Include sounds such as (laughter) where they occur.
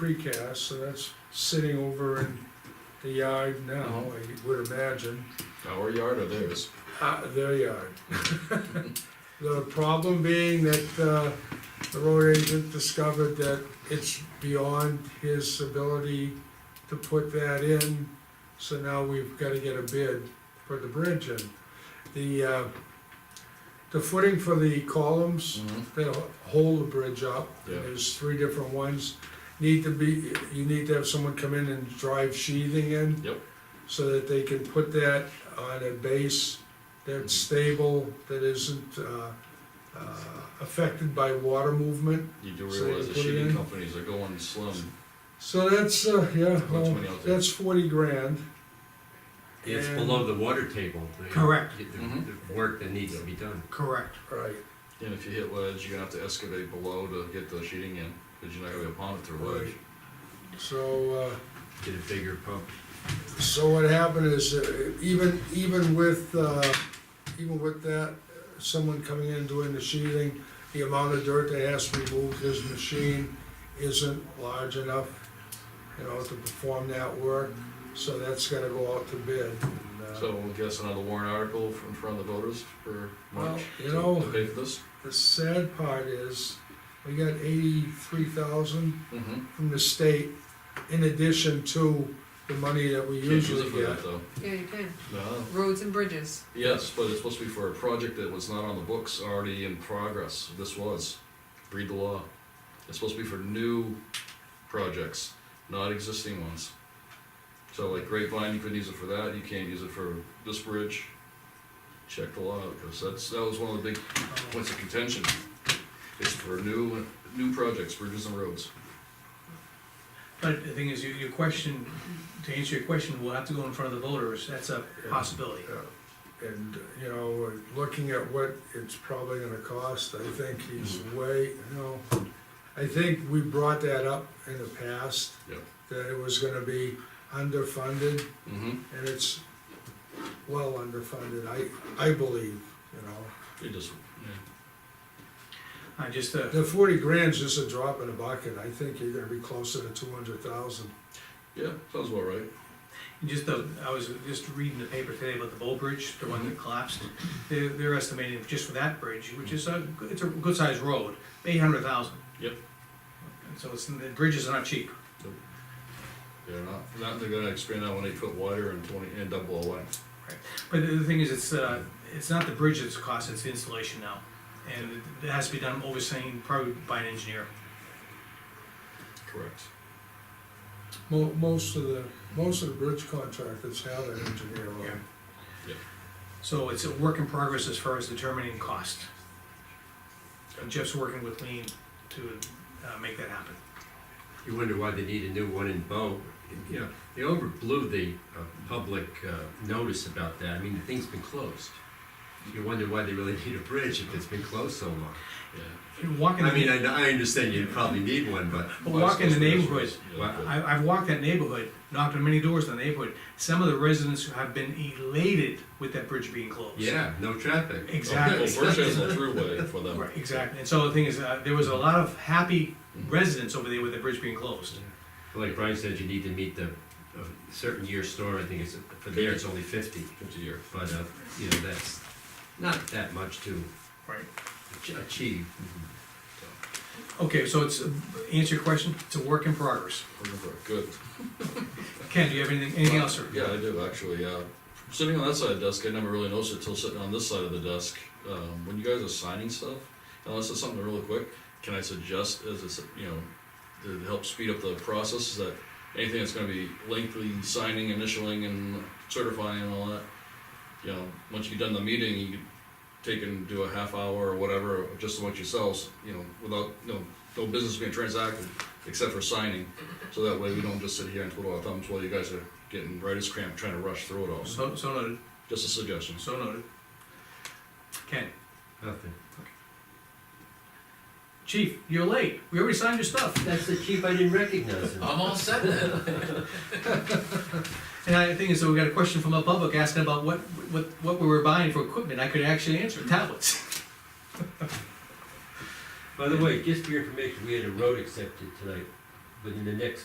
precast, so that's sitting over in the yard now, I would imagine, Our yard or theirs? uh, their yard. (laughs) The problem being that, uh, the road agent discovered that it's beyond his ability to put that in, so now we've gotta get a bid for the bridge in. The, uh, the footing for the columns, that'll hold the bridge up. Yeah. There's three different ones. Need to be, you need to have someone come in and drive sheathing in. Yep. So that they can put that on a base that's Mm-hmm. stable, that isn't, uh, uh, affected by water movement. You do So you realize the put it sheeting in? companies are going slim. So that's, uh, yeah, How much well, money out there? that's forty grand. It's And- below the water table. the- Correct. the- Mhm. The work that needs to be done. Correct. Right. And if you hit ledge, you're gonna have to excavate below to get the sheeting in, cause you're not gonna be able to pond it through ledge. So, uh, Get a bigger pump. So what happened is, uh, even, even with, uh, even with that, someone coming in and doing the sheathing, the amount of dirt that has to be moved, his machine isn't large enough, you know, to perform that work, so that's gotta go out to bid. and, uh, So we'll guess another warrant article in front of the voters for Well, March you to know- to pay for this? The sad part is, we got eighty-three thousand Mm-hmm. from the state, in addition to the money that we Can't use it usually for get. that though. Yeah, you can. No, Roads and bridges. yes, but it's supposed to be for a project that was not on the books, already in progress, this was. Read the law. It's supposed to be for new projects, not existing ones. So like Grapevine, you couldn't use it for that, you can't use it for this bridge. Check the law, because that's, that was one of the big points of contention. It's for new, new projects, bridges and roads. But the thing is, your, your question, to answer your question, we'll have to go in front of the voters, that's a possibility. Yeah, And, you know, looking at what it's probably gonna cost, I think he's way, you know, I think we brought that up in the past. Yep. That it was gonna be underfunded, Mm-hmm. and it's well underfunded, I, I believe, you know. It just, I just, uh, The forty grand's just a drop in the bucket, I think you're gonna be closer to two hundred thousand. yeah, sounds about right. just, uh, I was just reading the paper today about the Bow Bridge, the one that collapsed. They're, they're estimating just for that bridge, which is a, it's a good-sized road, eight hundred thousand. Yep. And so it's, the bridges are not cheap. They're not, not, they're gonna expand that one eight foot wider and twenty, and double the length. But the thing is, it's, uh, it's not the bridge that's cost, it's the installation now. And it has to be done overseen probably by an engineer. Correct. Mo- most of the, most of the bridge contractors have an engineer on Yeah. it. So it's a work in progress as far as determining cost. And Jeff's working with Lean to uh, make that happen. You wonder why they need a new one in Bow. You know, they overblew the uh, public uh, notice about that. I mean, the thing's been closed. You wonder why they really (laughs) need a bridge if it's been closed so long. Yeah. And Walking, I mean, I, I, I understand you probably need one, but But walk in the neighborhood. Yeah. I've walked that neighborhood, knocked on many doors in the neighborhood. Some of the residents have been elated with that bridge being closed. yeah, no traffic. (laughs) Exactly. Well, Birch has a (laughs) throughway for them. Right, exactly. And so the thing is, uh, there was a lot of happy residents over there with the bridge being closed. Like Brian said, you need to meet the a certain year store. I think it's for there it's only fifty, Fifty year. but uh, you know that's not that much to Right. ach- achieve. Okay, so it's, uh, answer your question, it's a work in progress. Remember, Good. Ken, do you have anything, anything else, sir? Yeah, I do, actually, uh, sitting on that side of the desk, I never really noticed it till sitting on this side of the desk. Um, when you guys are signing stuff, unless it's something really quick, can I suggest as it's, you know, to help speed up the process, is that anything that's gonna be lengthy signing, initialing and certifying and all that, you know, once you've done the meeting, you could take and do a half hour or whatever, just amongst yourselves, you know, without, no, no business being transacted, except for signing. So that way we don't just sit here and twiddle our thumbs while you guys are getting writer's cramp trying to rush through it all. So, so noted, Just a suggestion. so noted. Ken, Nothing. chief, you're late, we already signed your stuff. That's the chief I didn't recognize him. I'm all set then. And I, the thing is, we got a question from the public asking about what, what, what we were buying for equipment, I could actually answer, tablets. By the way, just for your information, we had a road accepted tonight. within the next